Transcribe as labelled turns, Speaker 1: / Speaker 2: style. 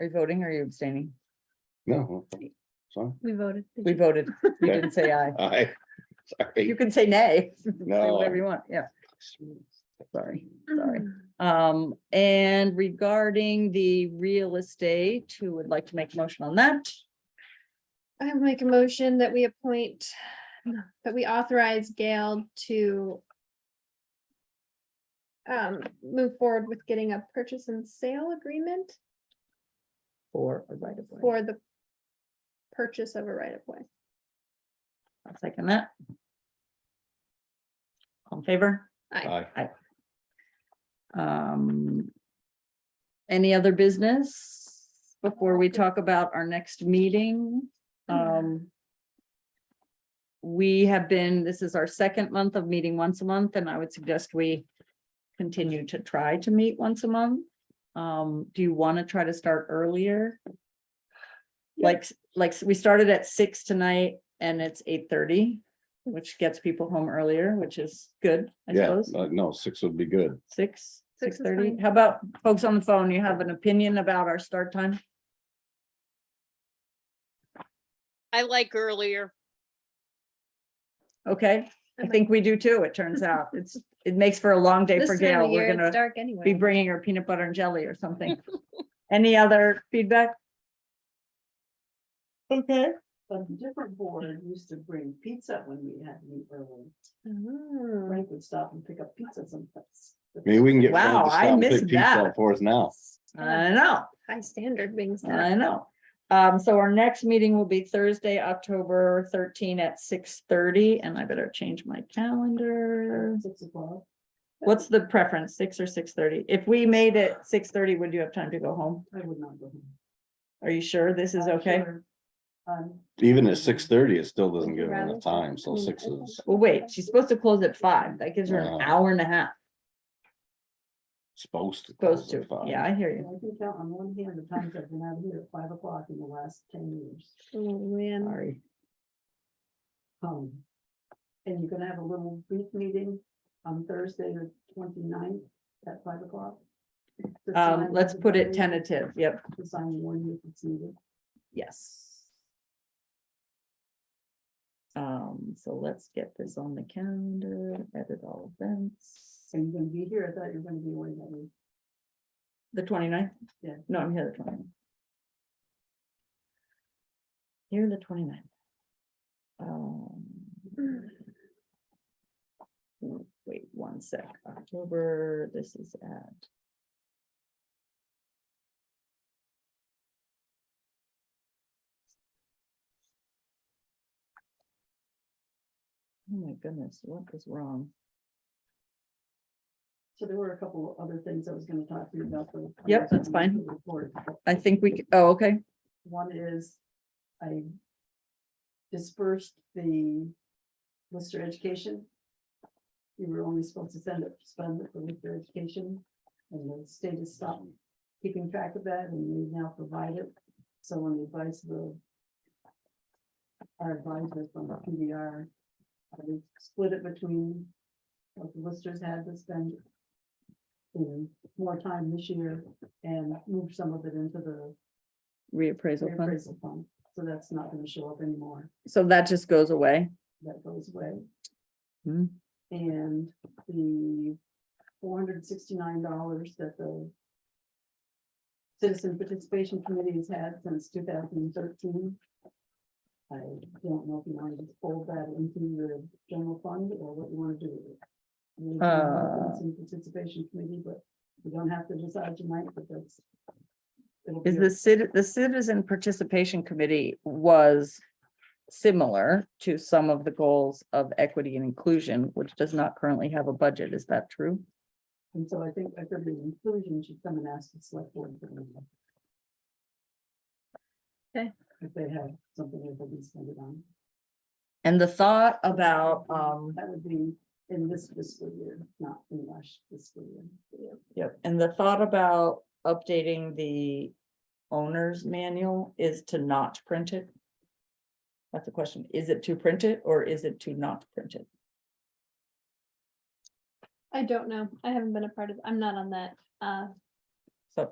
Speaker 1: Are you voting or are you abstaining?
Speaker 2: No. okay, Sorry.
Speaker 3: We voted. Did
Speaker 1: We
Speaker 3: you-
Speaker 1: voted. You
Speaker 2: Okay.
Speaker 1: didn't say aye.
Speaker 2: I,
Speaker 1: You
Speaker 2: sorry.
Speaker 1: can say nay. Say
Speaker 2: No.
Speaker 1: Whatever you want, yeah, sorry, sorry. Um, and regarding the real estate, who would like to make a motion on that?
Speaker 3: I would make a motion that we appoint, that we authorize Gail to um, move forward with getting a purchase and sale agreement
Speaker 1: For a right of way.
Speaker 3: for the purchase of a right of way.
Speaker 1: I'll second that. All in favor?
Speaker 2: Aye.
Speaker 1: Um. Any other business before we talk about our next meeting? Um. We have been, this is our second month of meeting once a month, and I would suggest we continue to try to meet once a month. Um, do you want to try to start earlier? Like, like, we started at six tonight and it's eight thirty, which gets people home earlier, which is good, I
Speaker 2: Yeah,
Speaker 1: suppose.
Speaker 2: uh, no, six would be good.
Speaker 1: Six, six
Speaker 3: Six is
Speaker 1: thirty.
Speaker 3: fine.
Speaker 1: How about folks on the phone? You have an opinion about our start time?
Speaker 4: I like earlier.
Speaker 1: Okay, I think we do too, it turns out. It's, it makes for a long day
Speaker 3: This
Speaker 1: for
Speaker 3: time
Speaker 1: Gail.
Speaker 3: of year,
Speaker 1: We're
Speaker 3: it's
Speaker 1: gonna
Speaker 3: dark
Speaker 1: be
Speaker 3: anyway.
Speaker 1: bringing her peanut butter and jelly or something. Any other feedback? Okay.
Speaker 5: But the different board used to bring pizza when we had meat early.
Speaker 3: Oh.
Speaker 5: Frank would stop and pick up pizza sometimes.
Speaker 2: Maybe we can get. Frank to
Speaker 1: Wow, I
Speaker 2: stop and pick
Speaker 1: missed
Speaker 2: pizza
Speaker 1: that.
Speaker 2: up For us now.
Speaker 1: I know.
Speaker 3: High standard being
Speaker 1: I
Speaker 3: set.
Speaker 1: know. Um, so our next meeting will be Thursday, October thirteen at six thirty, and I better change my calendar.
Speaker 5: Six o'clock.
Speaker 1: What's the preference, six or six thirty? If we made it six thirty, would you have time to go home?
Speaker 5: I would not go home.
Speaker 1: Are you sure this is okay?
Speaker 5: Um,
Speaker 2: Even at six thirty, it still doesn't give her
Speaker 5: Rather-
Speaker 2: enough time,
Speaker 5: I
Speaker 2: so
Speaker 5: mean,
Speaker 2: six
Speaker 5: I think-
Speaker 2: is
Speaker 1: Well, wait, she's supposed to close at five. That gives her an
Speaker 2: Yeah.
Speaker 1: hour and a half,
Speaker 2: supposed to.
Speaker 1: close
Speaker 2: close at
Speaker 1: to,
Speaker 2: five.
Speaker 1: yeah, I hear
Speaker 5: and
Speaker 1: you.
Speaker 5: I can count on one hand the times I've been out here at five o'clock in the last ten years.
Speaker 3: Oh, man.
Speaker 1: Sorry.
Speaker 5: Um, and you're gonna have a little brief meeting on Thursday, the 29th at five o'clock. to
Speaker 1: Um,
Speaker 5: sign
Speaker 1: let's put it
Speaker 5: everybody,
Speaker 1: tentative, yep,
Speaker 5: To sign one if it's needed.
Speaker 1: yes. Um, so let's get this on the calendar, edit all events.
Speaker 5: Are you gonna be here? I thought you were gonna be away that week.
Speaker 1: The 29th.
Speaker 5: Yeah.
Speaker 1: No, I'm here the 29th. Here the 29th. Um. w- Wait one sec, October, this is at. Oh my goodness, what is wrong?
Speaker 5: So there were a couple of other things I was gonna talk to you about. but I
Speaker 1: Yep,
Speaker 5: guess
Speaker 1: that's
Speaker 5: I'm
Speaker 1: fine.
Speaker 5: gonna report.
Speaker 1: I think we, c- oh, okay,
Speaker 5: One is I dispersed the Lister education. You were only supposed to send it, spend it for Lister education, and the state has stopped keeping track of that, and they now provide it. So on the advice of the our advisors from the PDR, we split it between what the listers had to spend in more time this year and move some of it into the
Speaker 1: reappraisal fund,
Speaker 5: reappraisal fund, so that's not gonna show up anymore,
Speaker 1: so that just goes away.
Speaker 5: that goes away.
Speaker 1: Hmm.
Speaker 5: And the four hundred sixty-nine dollars that the Citizen Participation Committee has had since two thousand and thirteen. I don't know if you want to just fold that into your general fund or what you want to do with it. We can have the
Speaker 1: Uh.
Speaker 5: Citizen Participation Committee, but we don't have to decide tonight, but that's. it'll
Speaker 1: Is
Speaker 5: be a-
Speaker 1: the citi- the citizen participation committee was similar to some of the goals of equity and inclusion, which does not currently have a budget. Is that true?
Speaker 5: And so I think I could be inclusion should come and ask the select board. for their input.
Speaker 3: Okay.
Speaker 5: If they have something that they can spend it on.
Speaker 1: And the thought about, um,
Speaker 5: That would be in this fiscal year, not in last fiscal year.
Speaker 1: Yep, and the thought about updating the owner's manual is to not print it. That's the question. Is it to print it or is it to not print it?
Speaker 3: I don't know. I haven't been a part of, I'm not on that, uh,